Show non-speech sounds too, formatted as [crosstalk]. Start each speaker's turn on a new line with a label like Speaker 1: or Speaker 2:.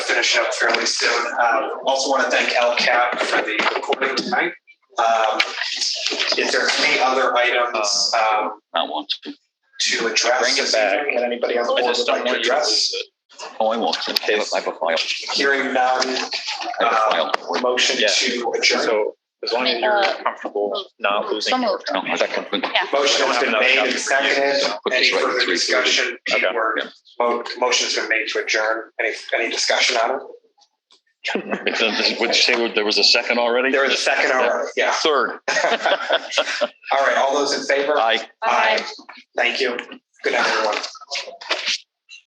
Speaker 1: finish up fairly soon. Um, Also want to thank LCAP for the recording tonight. Um, If there are any other items um,
Speaker 2: I want to.
Speaker 1: to address.
Speaker 2: Bring it
Speaker 1: this
Speaker 2: back.
Speaker 1: evening that Anybody on the
Speaker 2: I
Speaker 1: board
Speaker 2: just
Speaker 1: would like
Speaker 2: don't
Speaker 1: to
Speaker 2: want you to
Speaker 1: address?
Speaker 2: lose it. Oh, I won't. I have I have a file.
Speaker 1: Hearing none,
Speaker 2: I have a file.
Speaker 1: um, motion
Speaker 3: Yeah.
Speaker 1: to adjourn.
Speaker 3: So as long as you're
Speaker 1: uh,
Speaker 3: comfortable not
Speaker 4: So
Speaker 3: losing.
Speaker 4: moved.
Speaker 2: No, that can-
Speaker 1: Motion has been
Speaker 3: Don't have
Speaker 1: made and
Speaker 3: enough.
Speaker 1: seconded.
Speaker 2: Put
Speaker 1: Any
Speaker 2: this right at
Speaker 1: further
Speaker 2: 3:30.
Speaker 1: discussion?
Speaker 3: Okay.
Speaker 1: Keyword, mo- Motion's been made to adjourn. Any, any discussion on it?
Speaker 2: Would you say there was a second already?
Speaker 1: There was a second or, yeah.
Speaker 2: Third.
Speaker 1: [laughs] All right, all those in favor?
Speaker 2: Aye.
Speaker 4: Aye.
Speaker 1: Thank you. Good night, everyone.